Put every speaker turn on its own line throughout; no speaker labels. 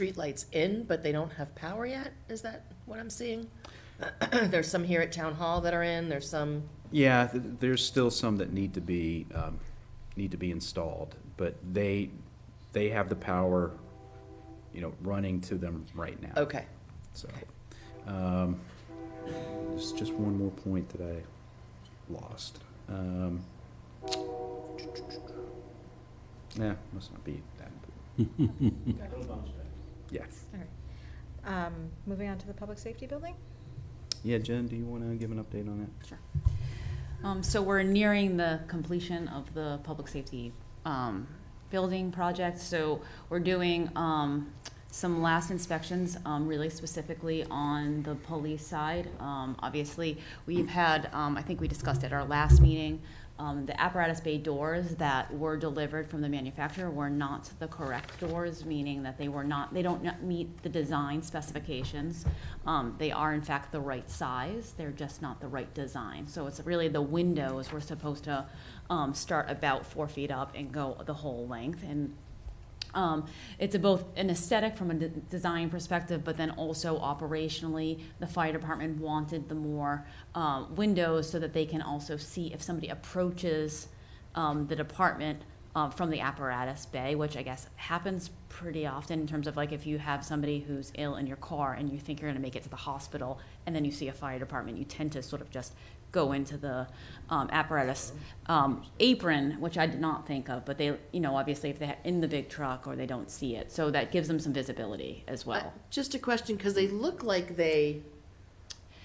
streetlights in, but they don't have power yet? Is that what I'm seeing? There's some here at Town Hall that are in, there's some,
Yeah, th- there's still some that need to be, um, need to be installed, but they, they have the power, you know, running to them right now.
okay.
So, um, there's just one more point that I lost. Um, yeah, must not be that. Yeah.
Um, moving on to the public safety building?
Yeah, Jen, do you want to give an update on that?
Um, so we're nearing the completion of the public safety, um, building project, so we're doing, um, some last inspections, um, really specifically on the police side. Um, obviously, we've had, um, I think we discussed at our last meeting, um, the apparatus bay doors that were delivered from the manufacturer were not the correct doors, meaning that they were not, they don't not meet the design specifications. Um, they are in fact the right size, they're just not the right design. So it's really the windows were supposed to, um, start about four feet up and go the whole length. And um, it's a both an aesthetic from a de- design perspective, but then also operationally, the fire department wanted the more um, windows so that they can also see if somebody approaches um, the department uh, from the apparatus bay, which I guess happens pretty often in terms of like if you have somebody who's ill in your car and you think you're going to make it to the hospital, and then you see a fire department, you tend to sort of just go into the um, apparatus um, apron, which I did not think of, but they, you know, obviously if they're in the big truck or they don't see it, so that gives them some visibility as
Uh,
well.
Just a question, because they look like they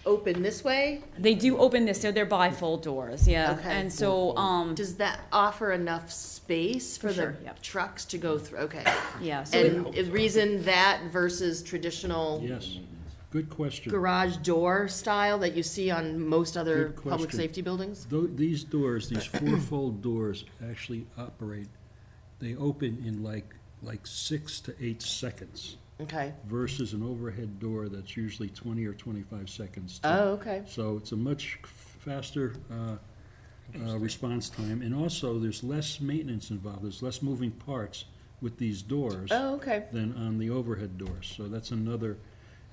open this way.
They do open this, so they're bifold doors, yeah,
Okay.
and so, um,
Does that offer enough space for the
Sure, yep.
trucks to go through? Okay.
yeah, so it-
And i- reason that versus traditional
Yes, good question.
garage door style that you see on most other
Good
public
question.
safety buildings?
Though these doors, these fourfold doors actually operate, they open in like, like six to eight seconds
Okay.
versus an overhead door that's usually twenty or twenty-five seconds. to-
Oh, okay.
So it's a much faster, uh, uh, response time, and also there's less maintenance involved, there's less moving parts with these doors.
Oh, okay.
than on the overhead doors. So that's another,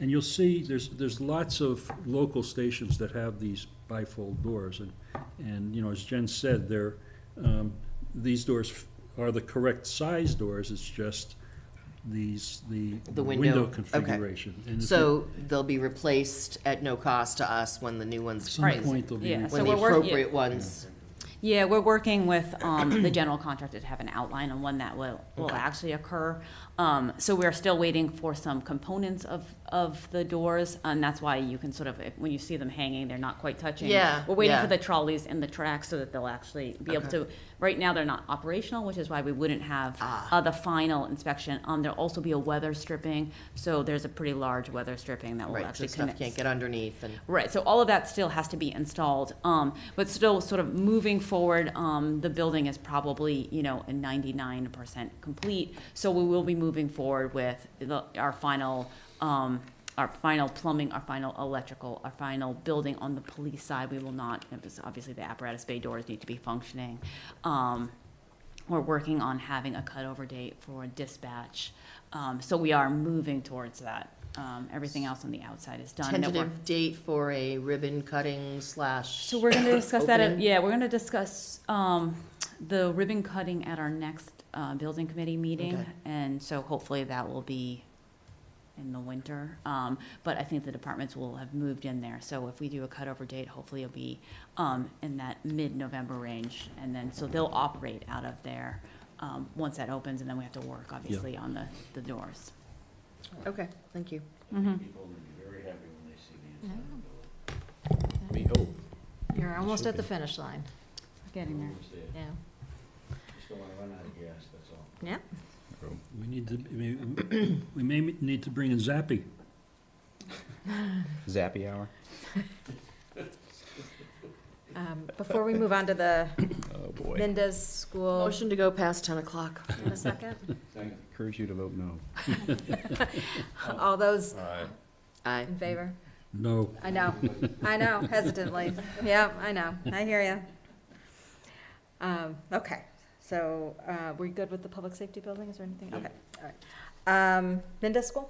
and you'll see, there's, there's lots of local stations that have these bifold doors. And, and, you know, as Jen said, they're, um, these doors f- are the correct size doors, it's just these, the
The window,
window
okay.
configuration. And if
So they'll be replaced at no cost to us when the new
At
ones
some
Right.
point, they'll be.
Yeah,
re-
so
when the
we're work- yeah.
appropriate ones.
Yeah, we're working with um, the general contractor to have an outline on when that will, will actually occur. Um, So we're still waiting for some components of, of the doors, and that's why you can sort of, if- when you see them hanging, they're not quite touching.
Yeah,
We're waiting
yeah.
for the trolleys and the tracks so that they'll actually be able
Okay.
to, right now, they're not operational, which is why we wouldn't have
Ah.
uh, the final inspection. Um, There'll also be a weather stripping, so there's a pretty large weather stripping that will
Right, so
actually
stuff
connect.
can't get underneath and,
Right, so all of that still has to be installed, um, but still sort of moving forward, um, the building is probably, you know, ninety-nine percent complete. So we will be moving forward with the, our final, um, our final plumbing, our final electrical, our final building on the police side. We will not, because obviously the apparatus bay doors need to be functioning. Um, we're working on having a cutover date for dispatch, um, so we are moving towards that. Um, everything else on the outside is done. that we're-
tentative date for a ribbon cutting slash.
so we're gonna discuss that, at-
Opening.
yeah, we're gonna discuss, um, the ribbon cutting at our next, uh, building committee meeting.
Okay.
And so hopefully that will be in the winter. Um, but I think the departments will have moved in there. So if we do a cutover date, hopefully it'll be, um, in that mid-November range. And then, so they'll operate out of there, um, once that opens and then we have to work, obviously, on the, the doors.
Okay, thank you.
Mm-hmm.
People will be very happy when they see the inside.
We hope.
You're almost at the finish line,
Getting there.
It's there.
yeah.
Just don't wanna run out of gas, that's all.
We need to, I mean, we may need to bring in Zappy.
Zappy hour.
Um, Before we move on to the
Oh, boy.
Mendez School,
Motion to go past ten o'clock.
in a second,
Second.
Encourage you to vote no.
all those
Aye.
in favor?
No,
I know, I know, hesitantly, yeah, I know, I hear Um, you. Okay, so uh, we're good with the public safety building, is there anything? Okay, all right. Um, Minda School?